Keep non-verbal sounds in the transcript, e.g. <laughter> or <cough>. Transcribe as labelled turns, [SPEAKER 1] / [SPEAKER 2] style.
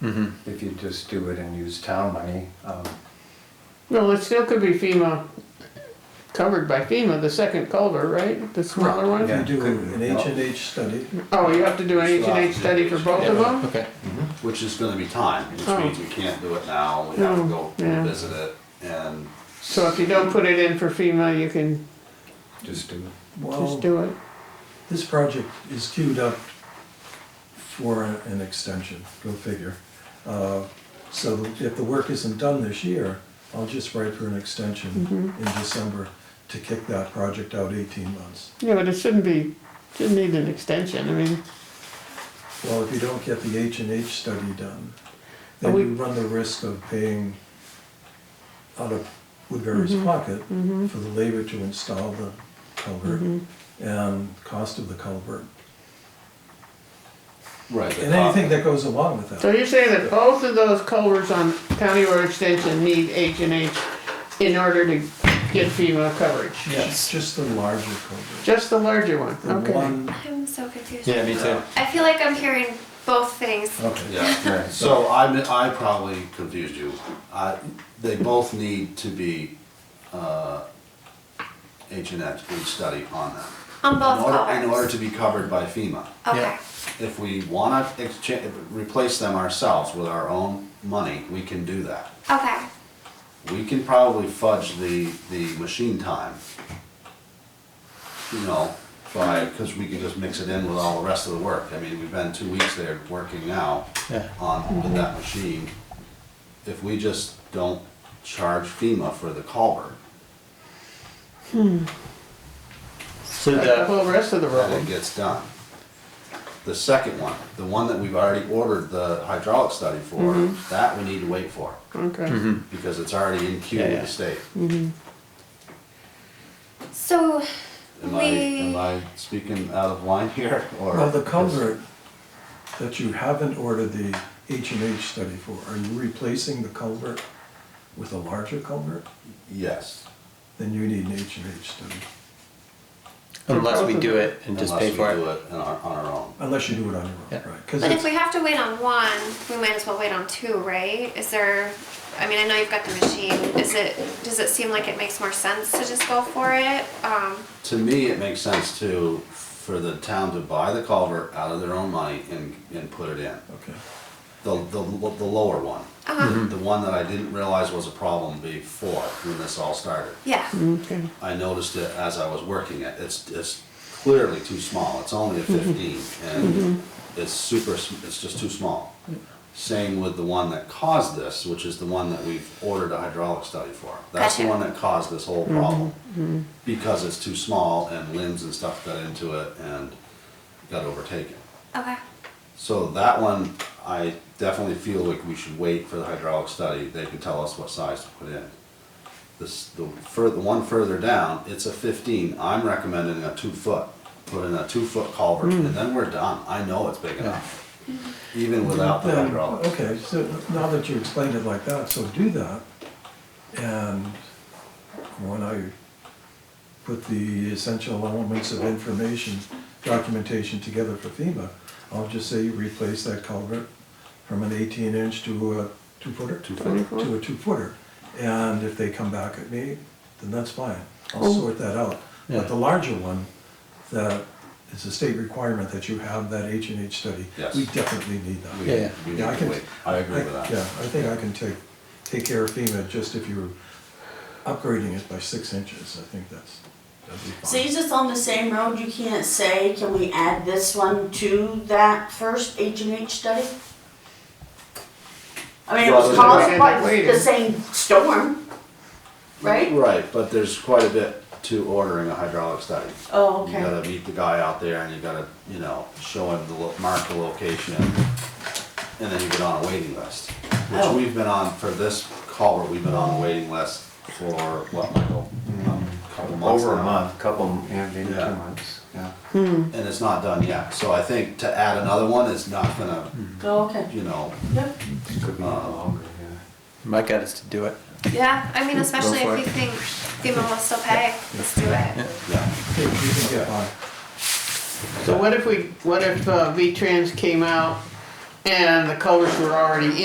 [SPEAKER 1] Mhm.
[SPEAKER 2] if you just do it and use town money. Um,
[SPEAKER 3] No, it still could be FEMA, covered by FEMA, the second culvert, right? The smaller one?
[SPEAKER 2] Yeah.
[SPEAKER 4] You do
[SPEAKER 2] could-
[SPEAKER 4] an H and H study,
[SPEAKER 3] Oh, you have to do an H and H study for both of them?
[SPEAKER 1] Okay.
[SPEAKER 5] Which is gonna be time, which
[SPEAKER 3] Oh.
[SPEAKER 5] means we can't do it now, we have to
[SPEAKER 3] No,
[SPEAKER 5] go
[SPEAKER 3] yeah.
[SPEAKER 5] visit it and.
[SPEAKER 3] So if you don't put it in for FEMA, you can
[SPEAKER 2] Just do it.
[SPEAKER 4] well,
[SPEAKER 3] just do it.
[SPEAKER 4] this project is queued up for a- an extension, go figure. Uh, So if the work isn't done this year, I'll just write for an extension
[SPEAKER 3] Mm-hmm.
[SPEAKER 4] in December to kick that project out eighteen months.
[SPEAKER 3] Yeah, but it shouldn't be, shouldn't need an extension, I mean,
[SPEAKER 4] Well, if you don't get the H and H study done, then
[SPEAKER 3] But we-
[SPEAKER 4] you run the risk of paying out of Woodbury's
[SPEAKER 3] Mm-hmm.
[SPEAKER 4] pocket for the labor to install the culvert
[SPEAKER 3] Mm-hmm.
[SPEAKER 4] and cost of the culvert.
[SPEAKER 5] Right.
[SPEAKER 4] And anything that goes along with
[SPEAKER 3] so
[SPEAKER 4] that.
[SPEAKER 3] you're saying that both of those culverts on County Road Extension need H and H in order to get FEMA coverage?
[SPEAKER 4] Yes. Just the larger culvert.
[SPEAKER 3] Just the larger one,
[SPEAKER 4] The
[SPEAKER 3] okay.
[SPEAKER 4] one,
[SPEAKER 6] I'm so confused.
[SPEAKER 1] Yeah, me too.
[SPEAKER 6] I feel like I'm hearing both things.
[SPEAKER 4] okay. <laughs>
[SPEAKER 5] Yeah,
[SPEAKER 2] Right.
[SPEAKER 5] so I, mi- I probably confused you. I, they both need to be, uh, H and H, we study on them.
[SPEAKER 6] On both
[SPEAKER 5] In order- In
[SPEAKER 6] culverts.
[SPEAKER 5] order to be covered by FEMA.
[SPEAKER 6] Okay.
[SPEAKER 1] Yeah.
[SPEAKER 5] If we wanna exchange, replace them ourselves with our own money, we can do that.
[SPEAKER 6] Okay.
[SPEAKER 5] we can probably fudge the, the machine time. You know, by, because we can just mix it in with all the rest of the work. I mean, we've been two weeks there working now
[SPEAKER 1] Yeah.
[SPEAKER 5] on, with that machine. If we just don't charge FEMA for the culvert,
[SPEAKER 1] So
[SPEAKER 3] Like The
[SPEAKER 1] the,
[SPEAKER 3] whole rest of the
[SPEAKER 5] then it
[SPEAKER 3] road,
[SPEAKER 5] gets done. The second one, the one that we've already ordered the hydraulic study for, that we need to wait for,
[SPEAKER 3] okay.
[SPEAKER 5] because it's already in queue
[SPEAKER 1] Yeah,
[SPEAKER 5] with
[SPEAKER 1] yeah.
[SPEAKER 5] the state.
[SPEAKER 6] So
[SPEAKER 5] Am I, am
[SPEAKER 6] We-
[SPEAKER 5] I speaking out of line here, or?
[SPEAKER 4] Well, the culvert that you haven't ordered the H and H study for, are you replacing the culvert with a larger culvert?
[SPEAKER 5] Yes,
[SPEAKER 4] Then you need an H and H study,
[SPEAKER 1] unless we do it and
[SPEAKER 5] unless
[SPEAKER 1] just
[SPEAKER 5] we
[SPEAKER 1] pay for
[SPEAKER 5] do
[SPEAKER 1] it.
[SPEAKER 5] it on our, on our own.
[SPEAKER 4] unless you do it on your
[SPEAKER 1] Yeah.
[SPEAKER 4] own, right? 'Cause
[SPEAKER 6] but if
[SPEAKER 4] it's,
[SPEAKER 6] we have to wait on one, we might as well wait on two, right? Is there I mean I know you've got the machine. Is it does it seem like it makes more sense to just go for it? Um
[SPEAKER 5] To me, it makes sense to, for the town to buy the culvert out of their own money and, and put it in.
[SPEAKER 4] okay,
[SPEAKER 5] The, the, lo- the lower one,
[SPEAKER 1] Mm-hmm.
[SPEAKER 6] uh-huh.
[SPEAKER 5] the one that I didn't realize was a problem before, when this all started.
[SPEAKER 6] yeah.
[SPEAKER 3] Okay,
[SPEAKER 5] I noticed it as I was working it, it's, it's clearly too small, it's only a fifteen, and it's super, s- it's just too small. Same with the one that caused this, which is the one that we've ordered a hydraulic study for. That's the
[SPEAKER 6] Gotcha.
[SPEAKER 5] one that caused this whole problem, because it's too small and limbs and stuff got into it and got overtaken.
[SPEAKER 6] Okay.
[SPEAKER 5] So that one, I definitely feel like we should wait for the hydraulic study, they can tell us what size to put in. This, the fur, the one further down, it's a fifteen, I'm recommending a two foot, put in a two foot culvert,
[SPEAKER 4] Hmm.
[SPEAKER 5] and then we're done, I know it's big enough. Even without the
[SPEAKER 4] Then-
[SPEAKER 5] hydraulic,
[SPEAKER 4] Okay, so now that you explained it like that, so do that. And when I put the essential elements of information, documentation together for FEMA, I'll just say you replace that culvert from an eighteen inch to a two footer? Two
[SPEAKER 3] footer.
[SPEAKER 4] To a two footer. And if they come back at me, then that's fine. I'll sort that out.
[SPEAKER 1] Yeah.
[SPEAKER 4] But the larger one, that is a state requirement that you have that H and H study.
[SPEAKER 5] Yes.
[SPEAKER 4] We definitely need that.
[SPEAKER 5] we,
[SPEAKER 1] Yeah, yeah.
[SPEAKER 5] we
[SPEAKER 4] Yeah, I
[SPEAKER 5] need to
[SPEAKER 4] can-
[SPEAKER 5] wait, I agree with
[SPEAKER 4] Yeah,
[SPEAKER 5] that.
[SPEAKER 4] I think I can take, take care of FEMA, just if you're upgrading it by six inches, I think that's, that'd be
[SPEAKER 7] See,
[SPEAKER 4] fine.
[SPEAKER 7] it's just on the same road, you can't say, can we add this one to that first H and H study? I mean, it
[SPEAKER 5] Rather than-
[SPEAKER 7] was caused by
[SPEAKER 3] Waiting.
[SPEAKER 7] the same storm, right?
[SPEAKER 5] Right, but there's quite a bit to ordering a hydraulic study.
[SPEAKER 7] Oh,
[SPEAKER 5] You
[SPEAKER 7] okay.
[SPEAKER 5] gotta meet the guy out there and you gotta, you know, show him the, lo- mark the location, and then you get on a waiting list. Which
[SPEAKER 7] Oh.
[SPEAKER 5] we've been on, for this culvert, we've been on a waiting list for, what, Michael? Um, Couple months
[SPEAKER 2] Over a
[SPEAKER 5] now.
[SPEAKER 2] month, couple, yeah, maybe two
[SPEAKER 5] Yeah.
[SPEAKER 2] months, yeah.
[SPEAKER 5] And it's not done yet, so I think to add another one is not gonna,
[SPEAKER 7] Oh, okay.
[SPEAKER 5] you know,
[SPEAKER 7] Yep.
[SPEAKER 2] Could be longer, yeah.
[SPEAKER 1] My gut is to do it.
[SPEAKER 6] Yeah. I mean especially
[SPEAKER 1] for
[SPEAKER 6] if we
[SPEAKER 1] it.
[SPEAKER 6] think FEMA will still pay. Let's do it.
[SPEAKER 5] yeah.
[SPEAKER 4] Okay, you can get by.
[SPEAKER 3] so what if we, what if uh, V-Trans came out and the colors were already